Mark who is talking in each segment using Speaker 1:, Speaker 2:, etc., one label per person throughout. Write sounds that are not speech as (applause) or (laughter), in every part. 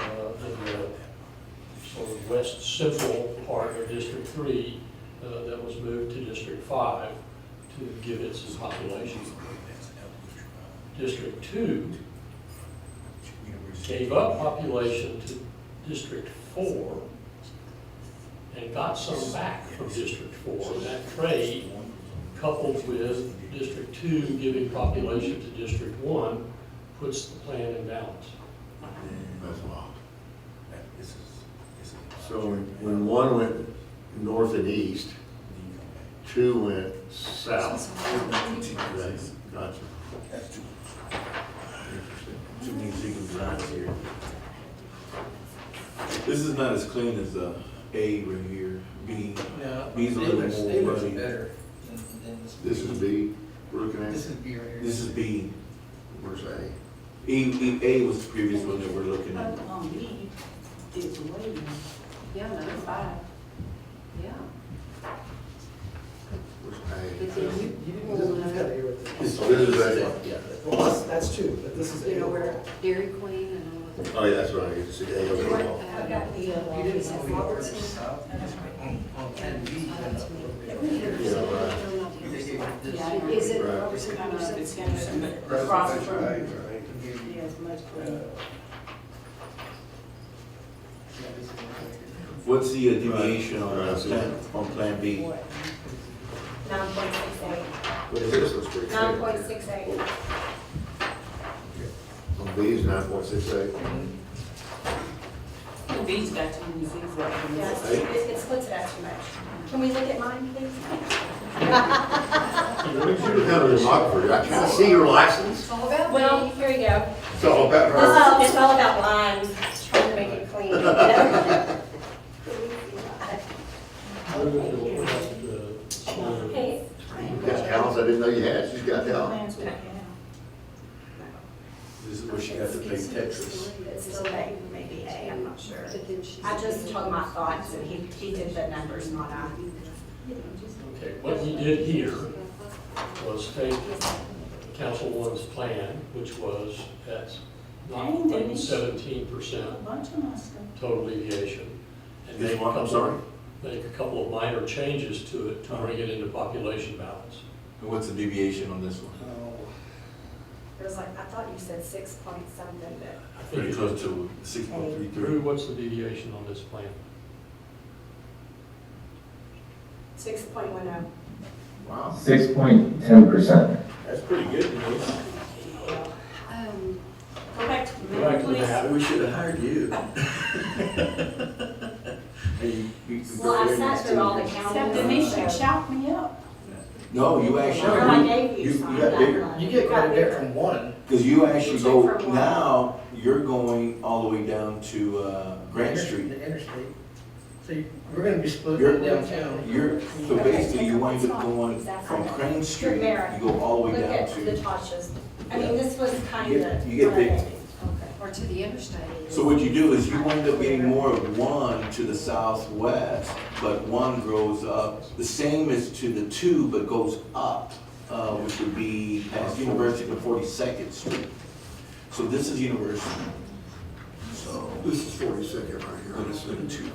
Speaker 1: uh, west central part of District Three uh, that was moved to District Five to give it some population. District Two gave up population to District Four and got some back from District Four. That trade coupled with District Two giving population to District One, puts the plan in balance.
Speaker 2: That's wild.
Speaker 3: So when when one went north and east, two went south. Right, Gotcha.
Speaker 2: Two things you can drive here. This is not as clean as, uh, A right here, B.
Speaker 4: No,
Speaker 2: B's a
Speaker 4: they
Speaker 2: little
Speaker 4: look-
Speaker 2: more
Speaker 4: they look
Speaker 2: muddy.
Speaker 4: better than, than this.
Speaker 3: This is B, we're looking
Speaker 4: This
Speaker 3: at,
Speaker 4: is beer here.
Speaker 2: This is B.
Speaker 3: where's A?
Speaker 2: E, E, A was the previous one that we're looking at.
Speaker 5: Vote
Speaker 6: um,
Speaker 5: on B is way, yeah, number five, yeah.
Speaker 3: Where's
Speaker 5: But
Speaker 3: A?
Speaker 5: then you,
Speaker 7: You didn't really look at it here with
Speaker 3: This
Speaker 7: the-
Speaker 3: is A.
Speaker 2: Yeah.
Speaker 7: Well, that's, that's true, but this is.
Speaker 5: you know, where Dairy Queen and all of Uh, that.
Speaker 3: Oh, yeah, that's right, it's A overall.
Speaker 5: You didn't
Speaker 4: It's over here to the south, and it's on-
Speaker 7: Oh,
Speaker 4: on ten B, you end up over there.
Speaker 5: Yeah, is it
Speaker 3: Right.
Speaker 5: Robertson Anderson?
Speaker 6: It's kind of across from, yeah, it's much closer.
Speaker 4: Yeah, this is right
Speaker 2: What's the uh, deviation on, uh,
Speaker 3: Right.
Speaker 2: plan, on plan B?
Speaker 6: Nine point six eight,
Speaker 3: What is this, let's break it.
Speaker 6: nine point six eight.
Speaker 3: On Oh, B is nine point six eight.
Speaker 6: The beach got too many things right Yeah, it's- it, it splits it out too much. Can we look at mine, please?
Speaker 3: You have a demographer, I can't see your license.
Speaker 5: All about
Speaker 6: Well, here we go. Um,
Speaker 3: It's all about
Speaker 6: This
Speaker 3: her.
Speaker 6: all, it's all about lines, trying to make it (laughs) clean. you know? Okay.
Speaker 3: You got cows I didn't know you had, she's got uh, cows.
Speaker 2: This is where she got to play Tetris.
Speaker 6: It's still A, maybe A, I'm not sure.
Speaker 5: But then she's-
Speaker 6: I just told my thoughts and he, he did the numbers, not I.
Speaker 1: Okay, what we did here was take Council One's plan, which was at not quite seventeen percent total deviation. and
Speaker 2: This
Speaker 1: make a
Speaker 2: one, I'm
Speaker 1: couple-
Speaker 2: sorry?
Speaker 1: Make a couple of minor changes to it to bring it into population balance.
Speaker 2: And what's the deviation on this one?
Speaker 4: there. Oh.
Speaker 6: It was like, I thought you said six point something, but
Speaker 1: I
Speaker 2: Pretty
Speaker 1: think
Speaker 2: close to six point three
Speaker 1: Drew,
Speaker 2: three.
Speaker 1: what's the deviation on this plan?
Speaker 6: six point one oh.
Speaker 2: Wow,
Speaker 8: Six point ten percent.
Speaker 2: that's pretty good, you know?
Speaker 5: Um,
Speaker 6: Go oh. back to the
Speaker 1: Go back
Speaker 6: map,
Speaker 1: to the
Speaker 6: please.
Speaker 1: map.
Speaker 2: We should have hired
Speaker 6: (laughs)
Speaker 2: you. (laughs) Hey, you- you can go
Speaker 6: Well, I
Speaker 2: there next
Speaker 6: sat through
Speaker 2: to
Speaker 6: all
Speaker 2: you.
Speaker 6: the
Speaker 9: Except
Speaker 6: county.
Speaker 9: Denise, you
Speaker 6: so-
Speaker 9: shout me up.
Speaker 2: No, you
Speaker 6: Well, I
Speaker 2: actually,
Speaker 6: gave
Speaker 2: you-
Speaker 6: you
Speaker 2: you
Speaker 6: some.
Speaker 2: got
Speaker 6: that
Speaker 2: bigger.
Speaker 6: one.
Speaker 4: You get
Speaker 6: got
Speaker 4: quite a bit
Speaker 6: bigger.
Speaker 4: from one.
Speaker 2: because you actually go,
Speaker 6: Except for one.
Speaker 2: now, you're going all the way down to, uh, Grant
Speaker 4: Inter-
Speaker 2: Street.
Speaker 4: The interstate. So you- we're gonna be splitting
Speaker 2: You're-
Speaker 4: it downtown.
Speaker 2: You're, so
Speaker 6: Okay,
Speaker 2: basically, you
Speaker 6: take up
Speaker 2: wind
Speaker 6: the
Speaker 2: up
Speaker 6: top.
Speaker 2: going
Speaker 6: Exactly.
Speaker 2: from Crane Street,
Speaker 6: Mara.
Speaker 2: you go all the
Speaker 6: Look
Speaker 2: way down
Speaker 6: at the
Speaker 2: to,
Speaker 6: Tasha's. I mean, this was kind
Speaker 2: You get-
Speaker 6: of.
Speaker 2: you get big.
Speaker 6: Okay.
Speaker 5: or to the interstate.
Speaker 2: so what you do is you wind up getting more of one to the southwest, but one grows up, the same as to the two, but goes up, uh, which would be past University to Forty-second Street. So this is University,
Speaker 3: So this is forty-second right here.
Speaker 2: but it's the two.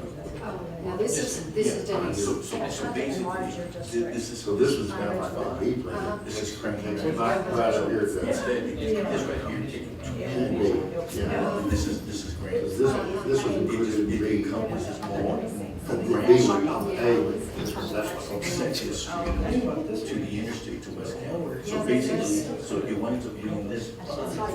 Speaker 5: Oh, Now, this is, this is
Speaker 2: Yeah, So,
Speaker 5: Denise.
Speaker 2: so, so basically, thi- this is.
Speaker 3: So this is kind of like a B
Speaker 5: Uh-huh.
Speaker 3: plan.
Speaker 2: This is Crane.
Speaker 3: Right right up here,
Speaker 2: This
Speaker 3: that's
Speaker 2: right here.
Speaker 3: B, yeah.
Speaker 2: This is, this is Crane.
Speaker 3: Because this, this was included in B.
Speaker 2: encompasses more
Speaker 3: The
Speaker 2: from
Speaker 3: B would
Speaker 2: Grand
Speaker 3: be
Speaker 2: Street
Speaker 3: A with, this is, that's what I'm
Speaker 2: from
Speaker 3: saying.
Speaker 2: Second Street to the interstate to West County. So basically, so it winds up being this.
Speaker 3: Yeah,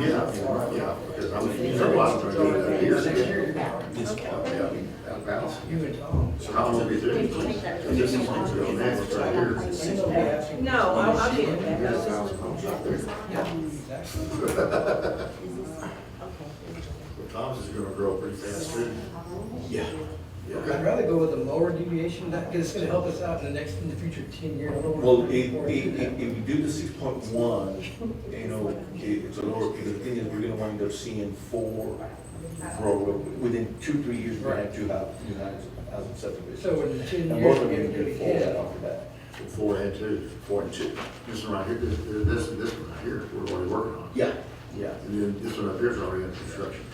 Speaker 3: yeah, yeah, because I'm, you know, I'm trying to do that here, yeah,
Speaker 2: This part.
Speaker 3: yeah, out of bounds.
Speaker 4: You and Tom.
Speaker 3: So how long we doing? And this is what's going on, it's right here.
Speaker 6: No, I'll, I'll give it back.
Speaker 3: This house comes up there. Well, Tom's is gonna grow pretty fast too.
Speaker 2: Yeah.
Speaker 4: I'd rather go with a lower deviation, that, because it's gonna help us out in the next, in the future ten years.
Speaker 2: Well, if, if, if if you do the six point one, you know, it- it's a lower, the thing is, we're gonna wind up seeing four grow, within two, three years, we're gonna have two houses, two houses, housing subdivisions.
Speaker 4: So in ten years,
Speaker 2: And both
Speaker 4: we're
Speaker 2: of them
Speaker 4: gonna
Speaker 2: are gonna
Speaker 4: get
Speaker 2: get four right
Speaker 4: ahead.
Speaker 2: off the bat.
Speaker 3: Four and two. Four and two. This one right here, this, this, this one right here, we're already working on.
Speaker 2: Yeah, yeah.
Speaker 3: And then this one up here's already in construction.